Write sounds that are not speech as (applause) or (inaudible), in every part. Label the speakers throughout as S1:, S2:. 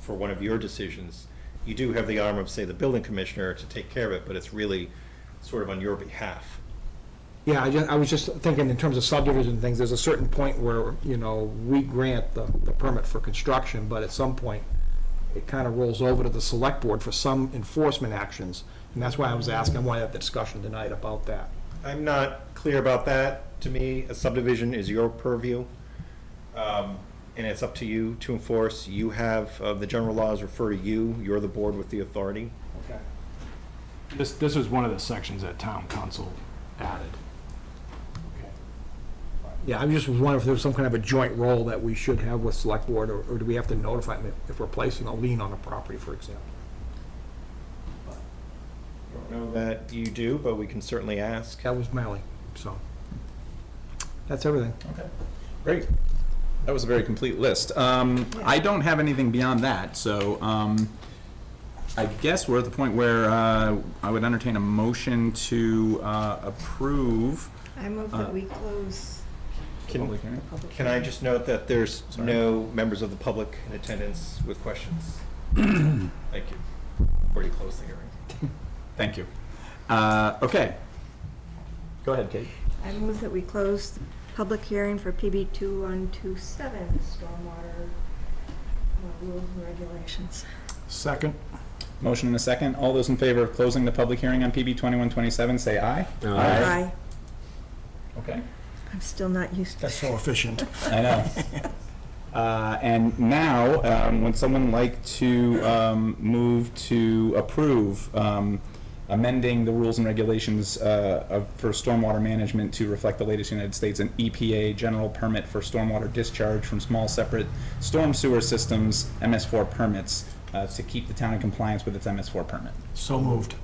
S1: for one of your decisions, you do have the arm of, say, the building commissioner to take care of it, but it's really sort of on your behalf.
S2: Yeah, I just, I was just thinking in terms of subdivision things, there's a certain point where, you know, we grant the, the permit for construction, but at some point, it kind of rolls over to the select board for some enforcement actions. And that's why I was asking, I wanted to have the discussion tonight about that.
S1: I'm not clear about that. To me, a subdivision is your purview, um, and it's up to you to enforce. You have, uh, the general laws refer to you, you're the board with the authority.
S2: Okay.
S3: This, this was one of the sections that town council added.
S2: Yeah, I was just wondering if there was some kind of a joint role that we should have with select board, or, or do we have to notify them if- if we're placing a lien on a property, for example?
S1: I don't know that you do, but we can certainly ask.
S2: That was my only, so. That's everything.
S4: Great. That was a very complete list. Um, I don't have anything beyond that, so, um, I guess we're at the point where, uh, I would entertain a motion to, uh, approve.
S5: I move that we close
S1: Can-
S4: Public hearing.
S5: public.
S1: Can I
S5: hearing.
S1: just note that there's
S4: Sorry.
S1: no members of the public in attendance with questions? Thank you. Already closed the hearing.
S4: Thank you. Uh, okay. Go ahead, Kate.
S5: I move that we close the public hearing for PB 2127, stormwater uh, rules and regulations.
S3: Second?
S4: Motion and a second. All those in favor of closing the public hearing on PB twenty-one twenty-seven, say aye.
S5: Aye.
S4: Okay.
S5: I'm still not used to
S2: That's so efficient.
S4: I know. (laughs) Uh, And now, um, would someone like to um, move to approve um, amending the rules and regulations uh, of- for stormwater management to reflect the latest United States and EPA general permit for stormwater discharge from small separate storm sewer systems, MS4 permits, uh, to keep the town in compliance with its MS4 permit?
S2: So moved.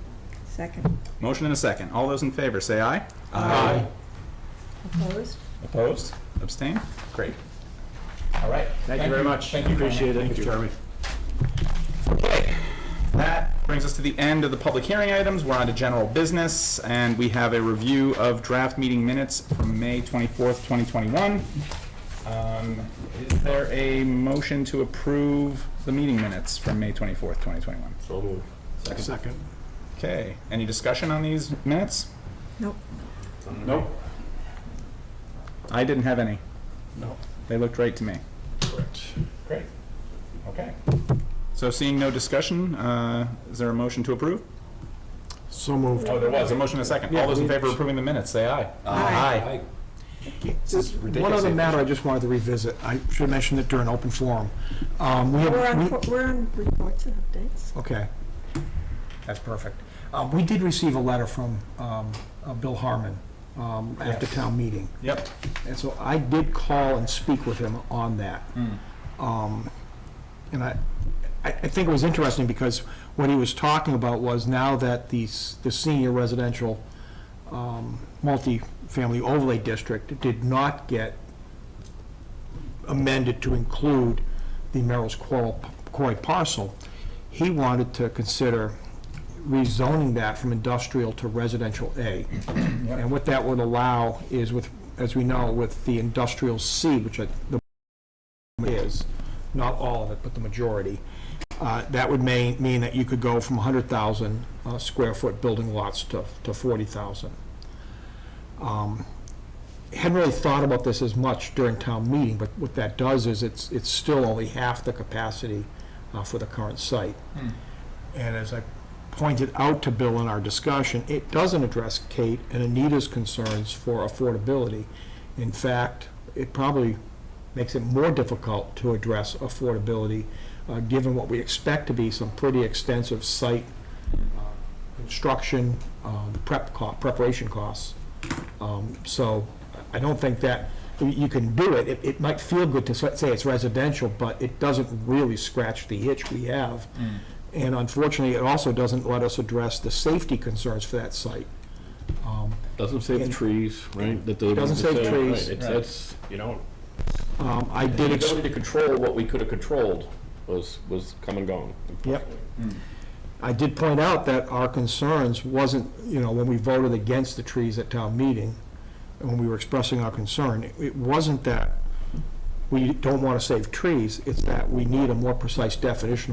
S5: second.
S4: Motion and a second. All those in favor, say aye.
S5: Opposed?
S4: Opposed? Abstain? Great. All right.
S3: Thank you very much.
S4: Thank you. Brian.
S3: Appreciate it, Jeremy.
S4: That brings us to the end of the public hearing items. We're on to general business, and we have a review of draft meeting minutes from May 24th, 2021. Um, Is there a motion to approve the meeting minutes from May 24th, 2021?
S6: So moved.
S3: Second.
S4: Okay, any discussion on these minutes?
S5: Nope.
S3: Nope.
S4: I didn't have any.
S3: No.
S4: They looked right to me. Great. Okay. So seeing no discussion, uh, is there a motion to approve?
S3: So moved.
S4: Oh, there was, a motion and a second. All those in favor of approving the minutes, say aye.
S5: Aye.
S4: This is
S2: One
S4: ridiculous.
S2: other matter I just wanted to revisit, I should mention it during open forum. Um, we have-
S5: We're on,
S2: we-
S5: po- we're on reports and updates.
S2: Okay. That's perfect. Um, we did receive a letter from, um, uh, Bill Harmon, um, after town meeting.
S4: Yep.
S2: And so I did call and speak with him on that. Um, And I, I I think it was interesting because what he was talking about was now that these, the senior residential um, multifamily overlay district did not get amended to include the Merrill's Quarry- Quarry parcel, he wanted to consider rezoning that from industrial to residential A. And what that would allow is with, as we know, with the industrial C, which I- the is, not all of it, but the majority, uh, that would may, mean that you could go from 100,000 uh, square foot building lots to, to 40,000. Um, Hadn't really thought about this as much during town meeting, but what that does is it's, it's still only half the capacity uh, for the current site. And as I pointed out to Bill in our discussion, it doesn't address Kate and Anita's concerns for affordability. In fact, it probably makes it more difficult to address affordability, uh, given what we expect to be some pretty extensive site uh, construction, um, prep, co- preparation costs. Um, So I don't think that, you can do it, it, it might feel good to s- say it's residential, but it doesn't really scratch the itch we have. And unfortunately, it also doesn't let us address the safety concerns for that site. Um,
S6: Doesn't save the trees, right? That doesn't-
S2: Doesn't save
S6: right,
S2: trees.
S6: It's, it's, you don't,
S2: um, I
S6: the
S2: did, ex-
S6: ability to control what we could have controlled was, was come and gone.
S2: Yep. I did point out that our concerns wasn't, you know, when we voted against the trees at town meeting, and when we were expressing our concern, it- it wasn't that we don't want to save trees, it's that we need a more precise definition of